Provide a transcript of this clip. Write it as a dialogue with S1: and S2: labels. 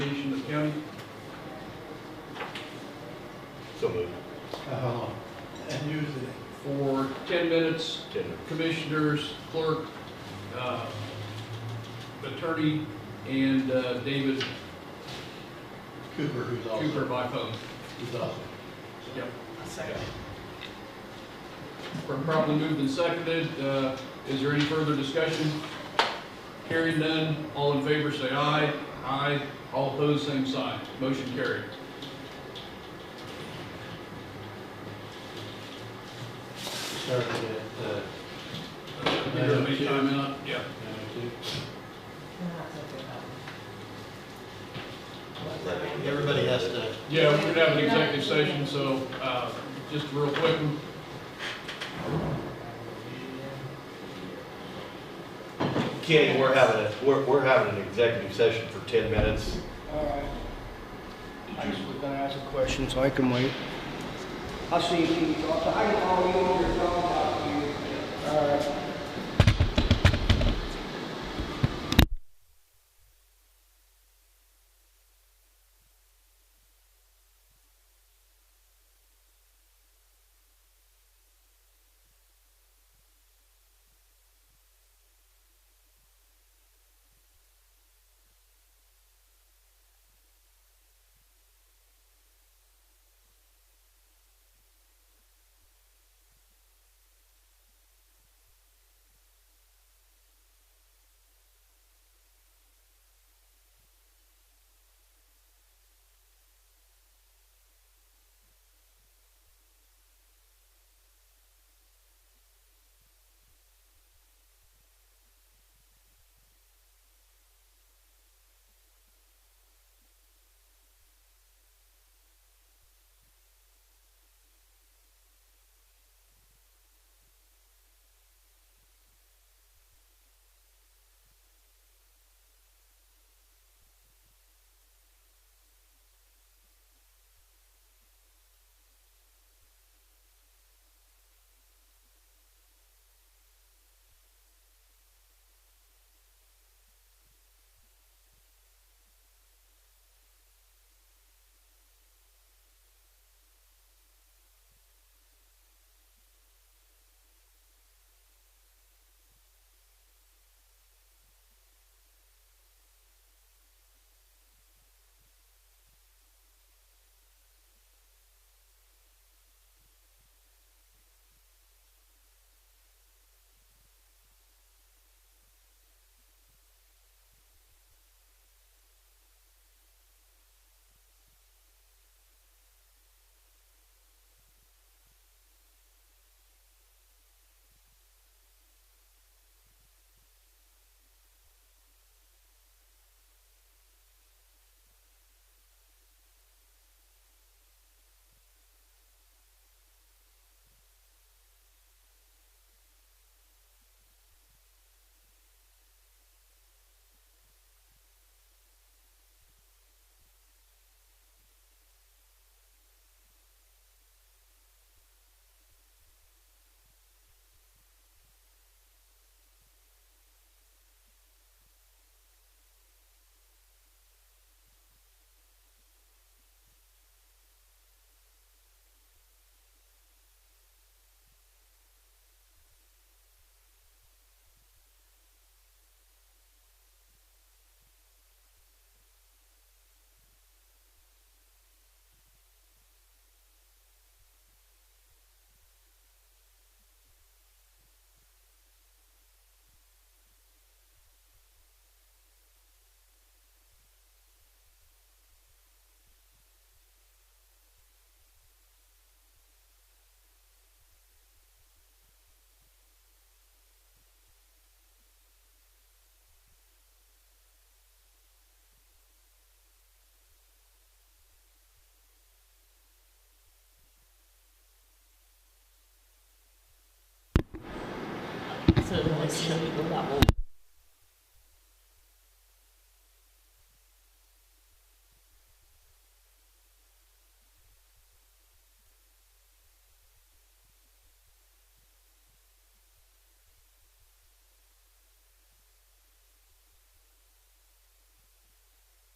S1: County?
S2: So moved.
S3: Uh-huh.
S1: Uh, And use it for ten minutes,
S2: Ten minutes.
S1: commissioners, clerk, uh, attorney, and uh, David
S3: Cooper, who's
S1: Cooper
S3: also,
S1: by phone.
S3: who's also.
S1: Yep.
S2: Second.
S1: We're Properly moved and seconded. Uh, Is there any further discussion? Hearing none, all in favor say aye. Aye. All opposed, same sign. Motion carried.
S3: Started at, uh,
S1: Uh, Give her a time out, yeah.
S3: nine oh two. Everybody has to,
S1: Yeah, we're gonna have an executive session, so, uh, just real quick.
S2: Kenny, we're having a, we're, we're having an executive session for ten minutes.
S4: All right. I just was gonna ask a question, so I can wait. I'll see you, I'll, I can call you over your phone, I'll talk to you. All right.